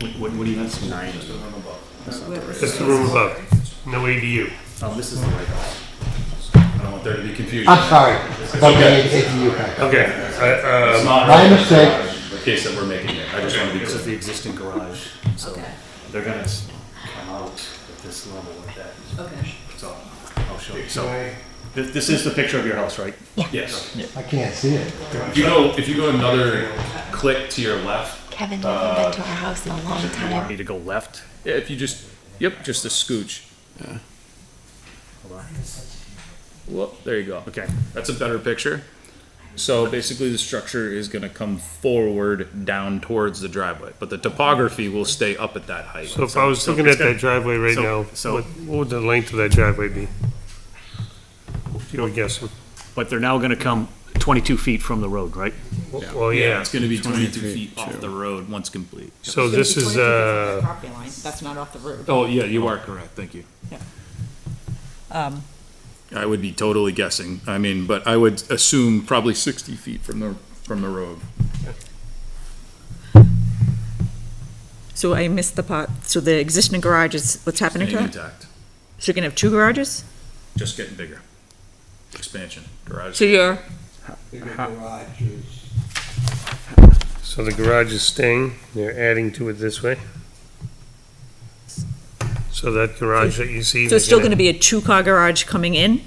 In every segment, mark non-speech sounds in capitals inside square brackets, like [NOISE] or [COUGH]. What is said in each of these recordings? What, what, what do you have? Nine. That's not the What was right That's the room above. No ADU. Oh, this is the right house. I don't want there to be confusion. I'm sorry. About the ADU part. Okay. I, It's um, not My really mistake. The case that we're making here. I just want to be This is clear. the existing garage, so Okay. they're gonna s- come out at this level with that. Okay. So I'll show you. So this, this is the picture of your house, right? Yes. I can't see it. If you go, if you go another click to your left, Kevin, you haven't been to our house in a long You want time. me to go left? yeah, if you just, yep, just a scooch. Hold on. Well, there you go. Okay. That's a better picture. So basically, the structure is going to come forward down towards the driveway, but the topography will stay up at that height. so if I was so looking it's at that gonna- driveway right so- now, so- what, what would the length of that driveway be? If you were guessing. But they're now gonna come twenty-two feet from the road, right? oh, Well, yeah. It's going to be 22 feet off the road once complete. So It's this gonna be is, 22 feet from uh, the Property line, that's not off the road. Oh, yeah, you are correct. Thank you. Um, I would be totally guessing. I mean, but I would assume probably 60 feet from the, from the road. So I missed the part, so the existing garage is, what's happening to Staying that? intact, So you're gonna have two garages? just getting bigger. Expansion, garage. So you're, So the garage is staying, they're adding to it this way. So that garage that you see. so it's still gonna be a two-car garage coming in?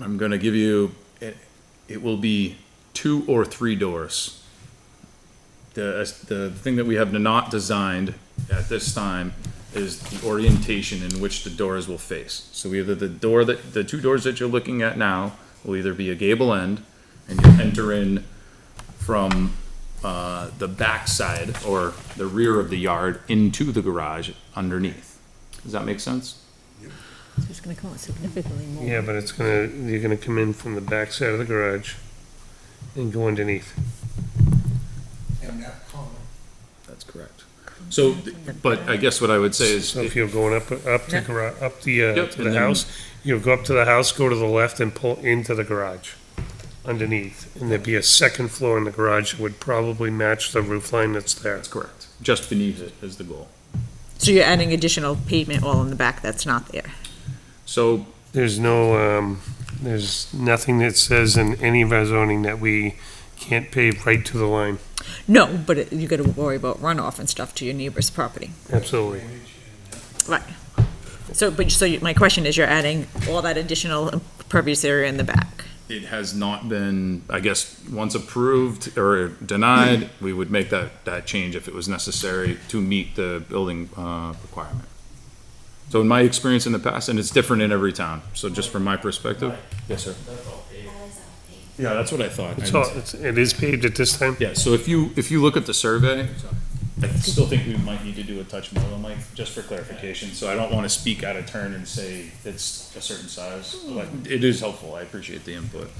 I'm going to give you, it, it will be two or three doors. The, the thing that we have not designed at this time is the orientation in which the doors will face. So either the door that, the two doors that you're looking at now will either be a gable end and you enter in from, uh, the backside or the rear of the yard into the garage underneath. Does that make sense? So it's gonna come out significantly more. Yeah, but it's gonna, you're gonna come in from the back side of the garage and go underneath. That's correct. So, but I guess what I would say is. So if you're going up, up the Yeah. garage, up the, uh, Yep, to and the then- house, you'll go up to the house, go to the left and pull into the garage underneath. And there'd be a second floor in the garage that would probably match the roof line that's there. That's correct. Just beneath it is the goal. So you're adding additional pavement all in the back that's not there? So, There's no, um, there's nothing that says in any of our zoning that we can't pave right to the line. No, but it- you gotta worry about runoff and stuff to your neighbor's property. Absolutely. Right. So, but, so you- my question is, you're adding all that additional impervious area in the back? it has not been, I guess, once approved or [CLEARS THROAT] denied, we would make that, that change if it was necessary to meet the building, uh, requirement. So in my experience in the past, and it's different in every town, so just from my perspective. Yes, sir. Yeah, that's what I thought. It's all, it's, it is paved at this time? Yeah, so if you, if you look at the survey, I still think we might need to do a touch more though, Mike, just for clarification, so I don't wanna speak out of turn and say it's a certain size, but it is helpful, I appreciate the input.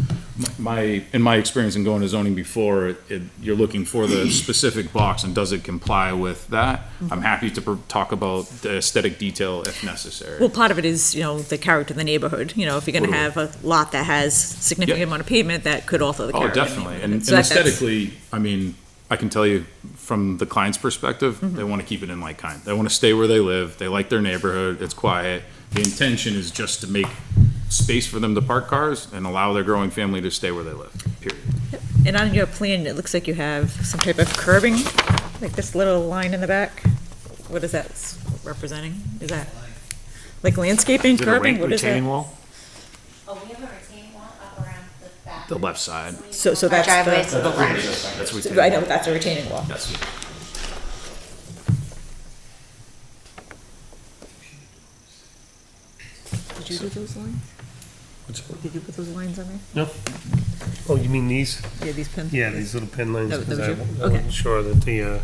My, in my experience in going to zoning before, it, you're looking for [COUGHS] the specific box and does it comply with that? I'm happy to pro- talk about the aesthetic detail if necessary. Well, part of it is, you know, the character of the neighborhood, you know, if you're gonna Totally. have a lot that has significant Yep. amount of pavement, that could alter the Oh, character. of the definitely, and neighborhood. and So that- that's- aesthetically, I mean, I can tell you from the client's perspective, Mm-hmm. they want to keep it in like kind. They want to stay where they live. They like their neighborhood. It's quiet. The intention is just to make space for them to park cars and allow their growing family to stay where they live. Period. And on your plan, it looks like you have some type of curbing, like this little line in the back. What is that s- representing? Is that like landscaping, Is it a curbing? re- What is retaining that? wall? Oh, we have a retaining wall up around the back. The left side. So, so that's Driveways to the, the left. That's what. I know, that's a retaining wall. That's Did you do those lines? Did you put those lines on there? Oh, you mean these? Yeah, these pins? Yeah, these little pin lines, That- that because was I you? I Okay. wasn't sure that the, uh,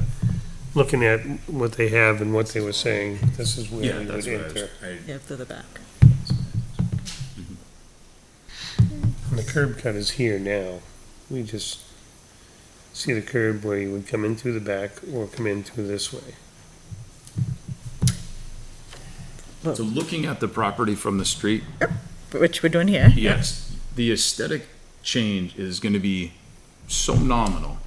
looking at what they have and what they were saying, this is where yeah. we That's would what I was. enter. I, Yeah, to the back. And the curb cut is here now. We just see the curb where you would come in through the back or come in through this way. so looking at the property from the street, Which we're doing here. Yes, the aesthetic change is going to be so nominal